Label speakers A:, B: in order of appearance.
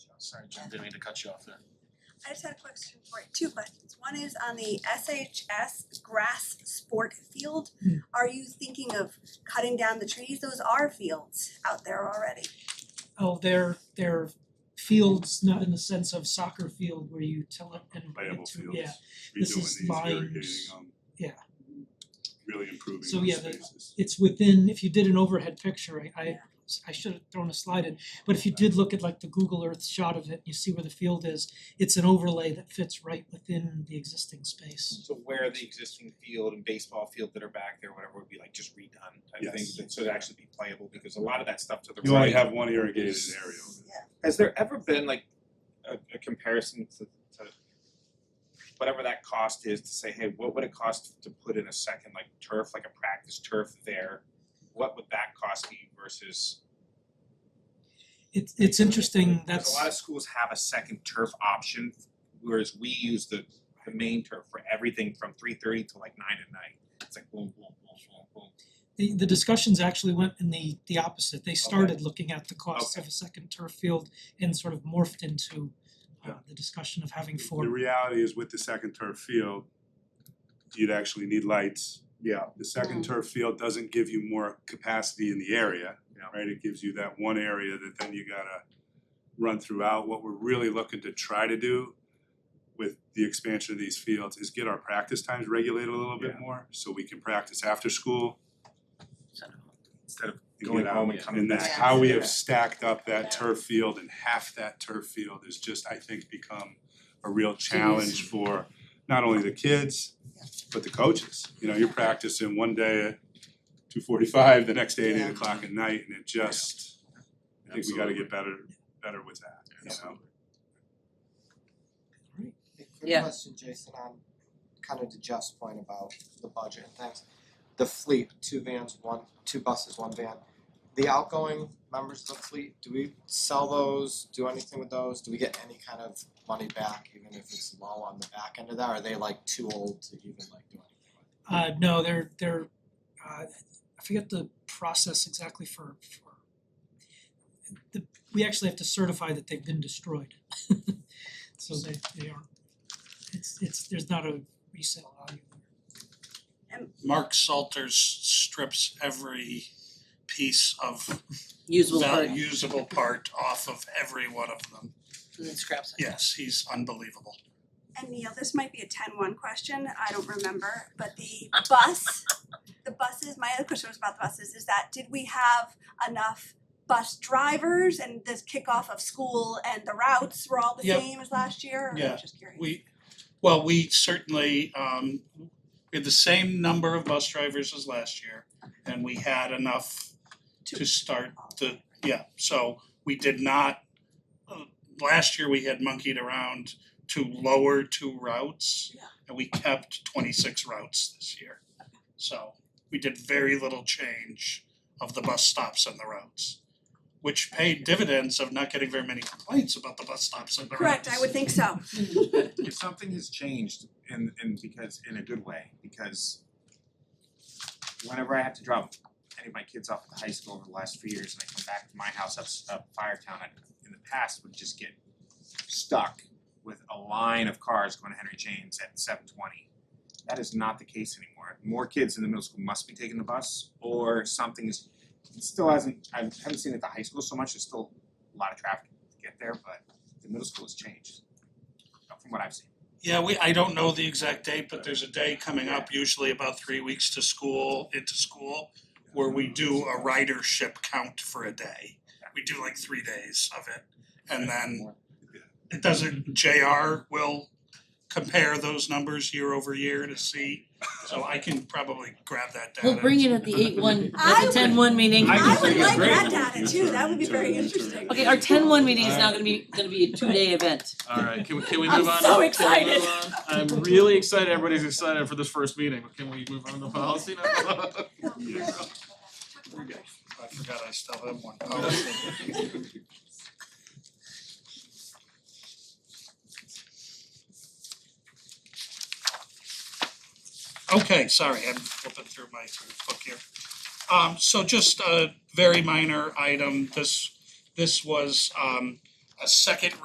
A: Sorry, Jim, didn't mean to cut you off there.
B: I just had a question for you, two questions. One is on the SHS grass sport field. Are you thinking of cutting down the trees? Those are fields out there already.
C: Oh, they're they're fields, not in the sense of soccer field where you tell it and put
D: playable
C: it to,
D: fields.
C: yeah. This is
D: Redoing these,
C: Vines.
D: irrigating them.
C: Yeah.
D: Really improving
C: So,
D: those
C: yeah, the-
D: spaces.
C: It's within, if you did an overhead picture, I I
B: Yeah.
C: I should have thrown a slide in, but if you did look at like the Google Earth shot of it, you see where the field is, it's an overlay that fits right within the existing space.
E: So where the existing field and baseball field that are back there, whatever, would be like just redone type thing,
D: Yes.
E: but so it'd actually be playable, because a lot of that stuff to the right.
D: You only have one irrigated area.
E: Has there ever been like a a comparison to to whatever that cost is to say, hey, what would it cost to put in a second like turf, like a practice turf there? What would that cost be versus
C: It's it's interesting,
E: Because a lot of
C: that's,
E: schools have a second turf option, whereas we use the the main turf for everything from three thirty to like nine at night. It's like boom, boom, boom, boom, boom.
C: the the discussions actually went in the the opposite. They started looking at the costs
E: Okay.
C: of a second turf field and sort of morphed into uh
D: Yeah.
C: the discussion of having
D: The
C: four,
D: reality is with the second turf field, you'd actually need lights.
E: Yeah.
D: The second
C: Mm-hmm.
D: turf field doesn't give you more capacity in the area,
E: Yeah.
D: right? It gives you that one area that then you gotta run throughout. What we're really looking to try to do with the expansion of these fields is get our practice times regulated a little bit
E: Yeah.
D: more, so we can practice after school
E: Instead of
D: and
E: Going
D: get out.
E: home and coming
D: that's
E: back.
D: how we
E: Yeah.
D: have stacked up
F: Yeah.
D: that turf field and half that turf field has just, I think, become a real challenge for not only the kids, but the coaches. You know, you're practicing one day at two forty-five, the next day at
F: Yeah.
D: eight o'clock at night, and it just, I think we gotta get better, better with that, you know?
G: A quick
F: Yeah.
G: question, Jason, on kind of to Jeff's point about the budget and things. The fleet, two vans, one, two buses, one van. The outgoing members of the fleet, do we sell those, do anything with those? Do we get any kind of money back, even if it's low on the back end of that? Are they like too old to even like do anything with?
C: uh no, they're they're uh I forget the process exactly for for the, we actually have to certify that they've been destroyed. So they they aren't, it's it's, there's not a resale value there.
H: Mark Salters strips every piece of
F: usable
H: val-
F: part
H: usable part off of every one of them.
F: and then scraps it.
H: Yes, he's unbelievable.
B: And Neil, this might be a ten one question, I don't remember, but the bus, the buses, my other question was about the buses, is that did we have enough bus drivers and this kickoff of school and the routes were all the
H: Yep.
B: same as last year? Or I'm
H: Yeah.
B: just curious.
H: We, well, we certainly, um, we had the same number of bus drivers as last year. And we had enough to start the, yeah, so we did not, uh, last year we had monkeyed around to lower two routes.
B: Yeah.
H: And we kept twenty-six routes this year. So we did very little change of the bus stops and the routes. Which paid dividends of not getting very many complaints about the bus stops and the routes.
B: Correct, I would think so.
E: if something has changed in in because in a good way, because whenever I have to drop any of my kids off at the high school over the last few years and I come back to my house up s- up Firetown, I in the past would just get stuck with a line of cars going to Henry James at seven twenty. That is not the case anymore. More kids in the middle school must be taking the bus or something is it still hasn't I haven't seen it at the high school so much, there's still a lot of traffic to get there, but the middle school has changed from what I've seen.
H: Yeah, we, I don't know the exact date, but there's a day coming up, usually about three weeks to school, into school, where we do a ridership count for a day. We do like three days of it, and then it doesn't, JR will compare those numbers year over year to see. So I can probably grab that data.
F: We'll bring it at the eight one,
B: I
F: at the
B: would-
F: ten one meeting.
E: I
B: I
E: think
B: would
E: it's
B: like
E: great.
B: that data too, that would be very
D: Sure.
B: interesting.
F: Okay, our ten one meeting is now gonna be, gonna be a two day event.
A: Alright, can we can we
B: I'm
A: move on?
B: so
A: Can we
B: excited.
A: move on? I'm really excited, everybody's excited for this first meeting, but can we move on to policy now?
H: We're good. I forgot I still have one. Oh. Okay, sorry, I'm flipping through my book here. Um, so just a very minor item, this, this was, um, a second